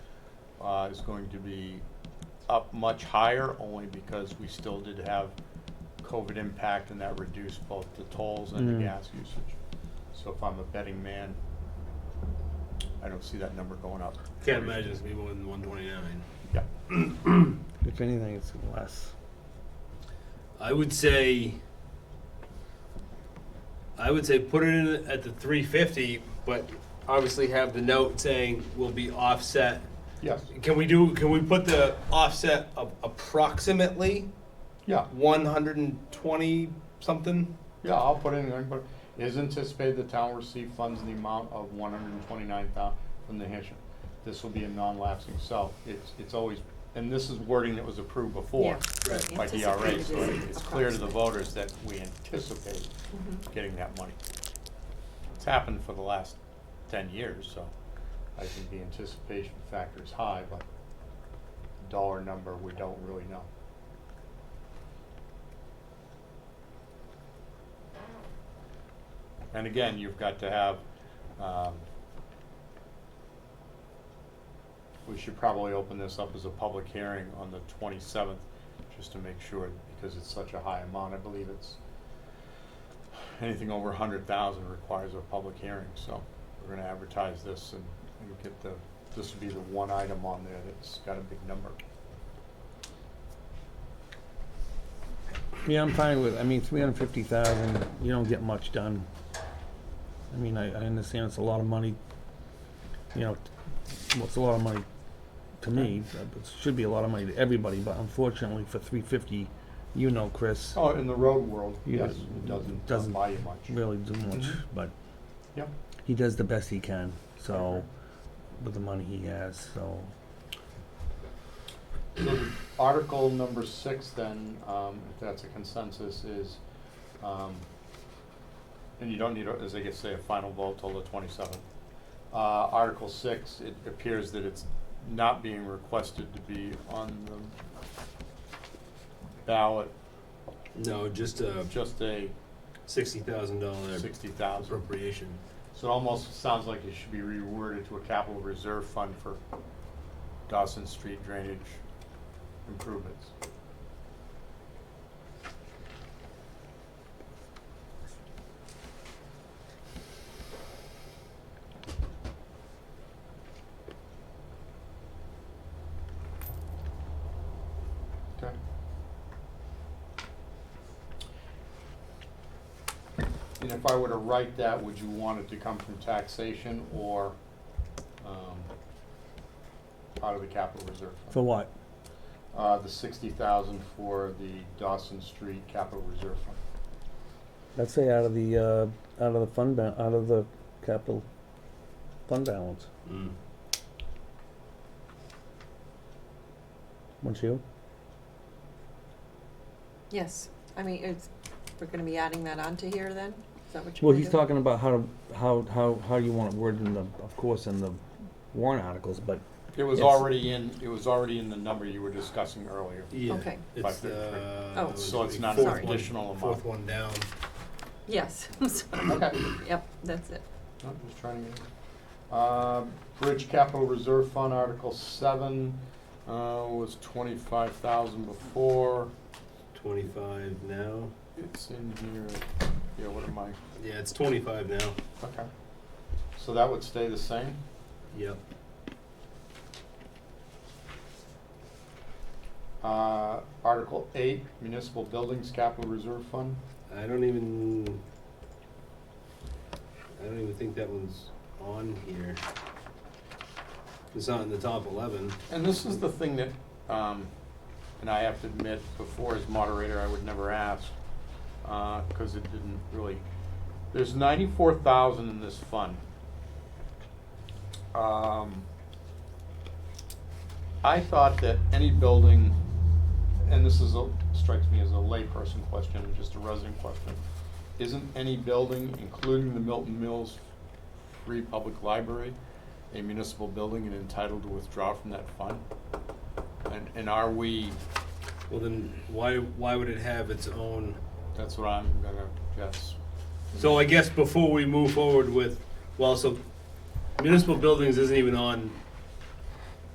uh, is going to be up much higher, only because we still did have COVID impact and that reduced both the tolls and the Mm. gas usage. So if I'm a betting man, I don't see that number going up. Can't imagine it's gonna be more than one twenty nine. Yeah. If anything, it's less. I would say. I would say put it in at the three fifty, but obviously have the note saying will be offset. Yes, Can we do? Can we put the offset of approximately yeah, one hundred and twenty something? yeah, I'll put in, there, but it is anticipated the town will receive funds in the amount of one hundred and twenty-nine thousand from New Hampshire. This will be a non-lapsing, so it's, it's always, and this is wording that was approved before. Right. by DRA, so Anticipated is it's clear to the approximate. voters that we anticipate Mm-hmm. getting that money. It's happened for the last ten years, so I think the anticipation factor is high, but the dollar number, we don't really know. And again, you've got to have, um, we should probably open this up as a public hearing on the twenty-seventh, just to make sure, because it's such a high amount, I believe it's, anything over a hundred thousand requires a public hearing, so we're gonna advertise this and, and get the, this would be the one item on there that's got a big number. Yeah, I'm fine with, I mean, three hundred fifty thousand, you don't get much done. I mean, I, I understand it's a lot of money, you know, t- well, it's a lot of money to me, but it should be a lot of money to everybody, but unfortunately for three fifty, you know, Chris, Oh, in the road world, Yeah. yes, it doesn't, doesn't Doesn't- buy you much. really do much, Mhm. but Yep. he does the best he can, so, Okay. with the money he has, so, So the Article number six then, um, if that's a consensus, is, um, and you don't need, a- as I guess, say, a final vote till the twenty-seventh. Uh, Article six, it appears that it's not being requested to be on the ballot, No, just a just a sixty thousand dollar sixty thousand. appropriation. So it almost sounds like it should be reworded to a capital reserve fund for Dawson Street drainage improvements. Okay. And if I were to write that, would you want it to come from taxation or, um, out of the capital reserve? fund? for what? Uh, the sixty thousand for the Dawson Street Capital Reserve Fund. I'd say out of the, uh, out of the fund ba- out of the capital fund balance, Mm. wouldn't you? Yes, I mean, it's, we're gonna be adding that onto here then? Is that what you're Well, gonna he's do? talking about how, to- how, how, how you want it worded in the, of course, in the warrant articles, but It was Yes. already in, it was already in the number you were discussing earlier. Yeah. Okay. It's uh, the Oh. So it's not an fourth one- additional amount. Fourth one down. Yes, I'm sorry. Okay. yep, that's it. I'm just trying to get it. Um, Bridge Capital Reserve Fund, Article seven, uh, was twenty-five thousand before. Twenty-five now. It's in here, yeah, what am I, Yeah, it's twenty-five now. okay. So that would stay the same? Yep. Uh, Article eight, Municipal Buildings Capital Reserve Fund. I don't even. I don't even think that one's on here. It's not in the top eleven. And this is the thing that, um, and I have to admit, before as moderator, I would never ask, uh, cause it didn't really, there's ninety-four thousand in this fund. Um, I thought that any building, and this is a, strikes me as a layperson question, just a resident question, isn't any building, including the Milton Mills Free Public Library, a municipal building and entitled to withdraw from that fund? And, and are we, Well, then why why would it have its own? that's what I'm gonna guess. So I guess before we move forward with, well, so municipal buildings isn't even on